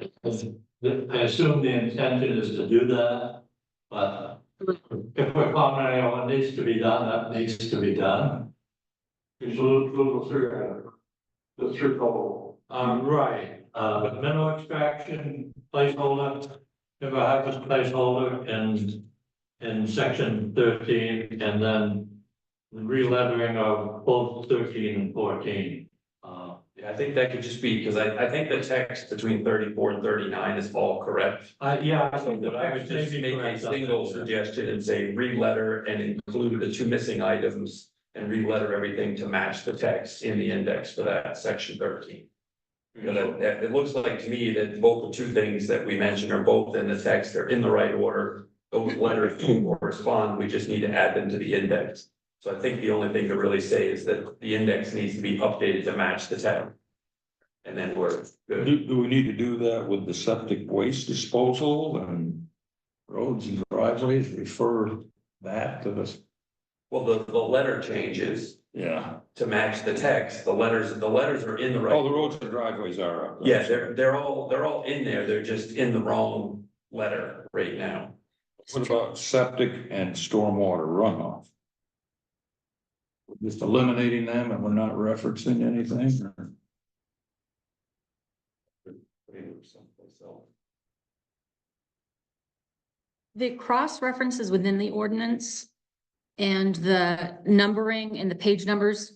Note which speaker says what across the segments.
Speaker 1: If- I assume the intention is to do that, but if we're commenting on what needs to be done, that needs to be done.
Speaker 2: There's a little, little circle, the circle.
Speaker 1: Um, right, uh, but mineral extraction placeholder, if I have a placeholder in, in section thirteen and then the relettering of both thirteen and fourteen. Uh,
Speaker 3: Yeah, I think that could just be, because I, I think the text between thirty-four and thirty-nine is all correct.
Speaker 1: I, yeah, I think
Speaker 3: But
Speaker 1: that
Speaker 3: I
Speaker 1: I
Speaker 3: would
Speaker 1: was
Speaker 3: just
Speaker 1: maybe
Speaker 3: make a
Speaker 1: correct on
Speaker 3: single
Speaker 1: that.
Speaker 3: suggestion and say re-letter and include the two missing items. And re-letter everything to match the text in the index for that section thirteen. Because it, it- it looks like to me that both the two things that we mentioned are both in the text, they're in the right order. Those letters do correspond, we just need to add them to the index. So I think the only thing to really say is that the index needs to be updated to match the text. And then we're good.
Speaker 4: Do, do we need to do that with the septic waste disposal and roads and driveways, refer that to this?
Speaker 3: Well, the, the letter changes
Speaker 4: Yeah.
Speaker 3: to match the text, the letters, the letters are in the
Speaker 4: All
Speaker 3: right.
Speaker 4: Oh, the roads and driveways are up.
Speaker 3: Yeah, they're, they're all, they're all in there, they're just in the wrong letter right now.
Speaker 4: What about septic and stormwater runoff? We're Just eliminating them and we're not referencing anything? or-
Speaker 5: The cross references within the ordinance and the numbering and the page numbers.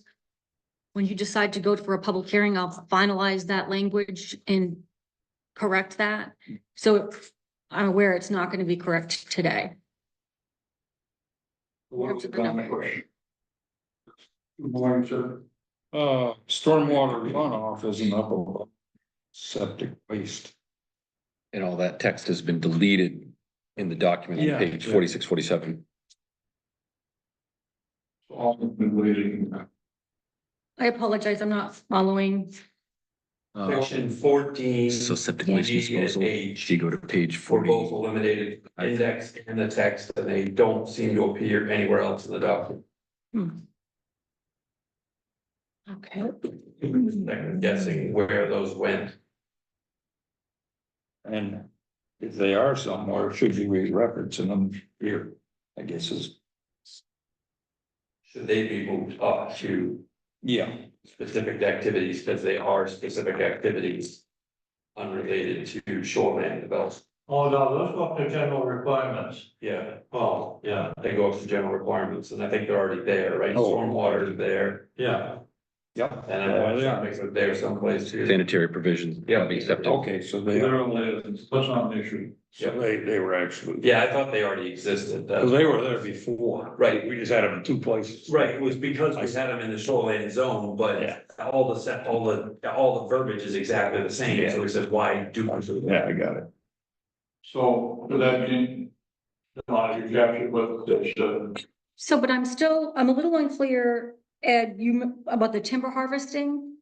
Speaker 5: When you decide to go for a public hearing, I'll finalize that language and correct that. So I'm aware it's not going to be correct today.
Speaker 2: What
Speaker 5: That's a good number.
Speaker 2: Good morning, sir.
Speaker 4: Uh, stormwater runoff isn't up above septic waste.
Speaker 6: And all that text has been deleted in the document
Speaker 4: Yeah.
Speaker 6: on page forty-six, forty-seven.
Speaker 2: All been waiting.
Speaker 5: I apologize, I'm not following.
Speaker 3: Section fourteen,
Speaker 6: Uh, So septic
Speaker 5: Yeah.
Speaker 6: waste disposal,
Speaker 3: H.
Speaker 6: if you go to page
Speaker 3: were
Speaker 6: forty.
Speaker 3: both eliminated, index and the text, and they don't seem to appear anywhere else in the document.
Speaker 5: Okay.
Speaker 3: I'm guessing where those went.
Speaker 4: And if they are somewhere, should you be referencing them here? I guess is,
Speaker 3: Should they be moved up to
Speaker 4: yeah.
Speaker 3: specific activities, because they are specific activities unrelated to shoreline development?
Speaker 1: Oh, no, those go up to general requirements.
Speaker 3: Yeah,
Speaker 1: Oh, yeah,
Speaker 3: they go up to general requirements, and I think they're already there, right?
Speaker 4: Oh.
Speaker 3: Stormwater is there,
Speaker 1: yeah.
Speaker 4: Yep.
Speaker 3: and
Speaker 4: Yeah,
Speaker 3: I'm
Speaker 4: they are.
Speaker 3: sure they're someplace too.
Speaker 6: Sanitary provisions.
Speaker 3: Yeah.
Speaker 6: Be septic.
Speaker 4: Okay, so they, are-
Speaker 1: They're only, that's not an issue.
Speaker 4: so they, they were actually.
Speaker 3: Yeah, I thought they already existed.
Speaker 4: Cause
Speaker 3: that's-
Speaker 4: they were there before.
Speaker 3: Right.
Speaker 4: We just had them in two places.
Speaker 3: Right, it was because we had them in the shoreline zone,
Speaker 4: Yeah.
Speaker 3: but all the set, all the, all the verbiage is exactly the same, so we said, why do that?
Speaker 4: Yeah, I got it.
Speaker 2: So, does that mean? Not exactly what this, uh,
Speaker 5: So, but I'm still, I'm a little unclear, Ed, you, m- about the timber harvesting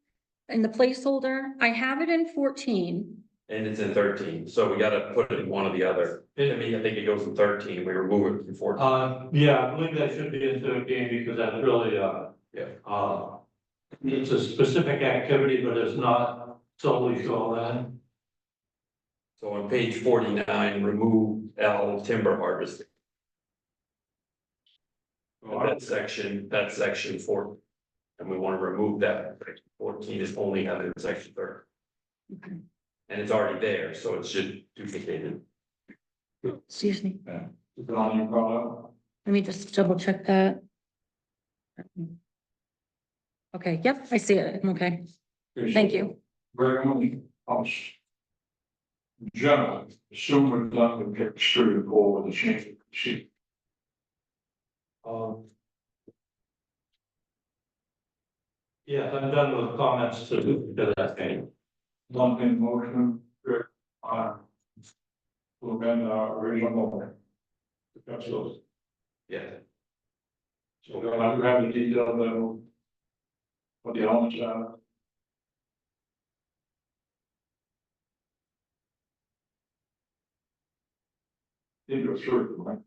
Speaker 5: and the placeholder. I have it in fourteen.
Speaker 3: And it's in thirteen, so we gotta put it in one or the other. I mean, I think it goes in thirteen, we remove it from fourteen.
Speaker 1: Uh, yeah, I believe that should be in thirteen because that's really, uh.
Speaker 3: Yeah.
Speaker 1: Uh, it's a specific activity, but it's not solely shoreline.
Speaker 3: So on page forty-nine, remove L timber harvesting,
Speaker 1: Oh,
Speaker 3: that section, that section four. And we wanna remove that, Section fourteen is only under section thirty,
Speaker 5: Okay.
Speaker 3: and it's already there, so it should duplicate it.
Speaker 5: Excuse me.
Speaker 2: is on your product?
Speaker 5: Let me just double check that. Okay, yep, I see it. I'm Okay, thank you.
Speaker 2: Very much. House. General, assume we're done with page three or four with the change. of sheet.
Speaker 1: Um. Yeah, I'm done with comments to, to that thing.
Speaker 2: Lump in motion, Rick, on. Will bend Uh, our original. That's those.
Speaker 3: Yeah.
Speaker 2: So we don't have the detail level. What the elements are. Into a circle, right?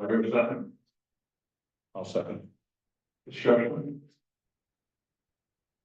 Speaker 2: I hear a second
Speaker 4: I'll second.
Speaker 2: discussion.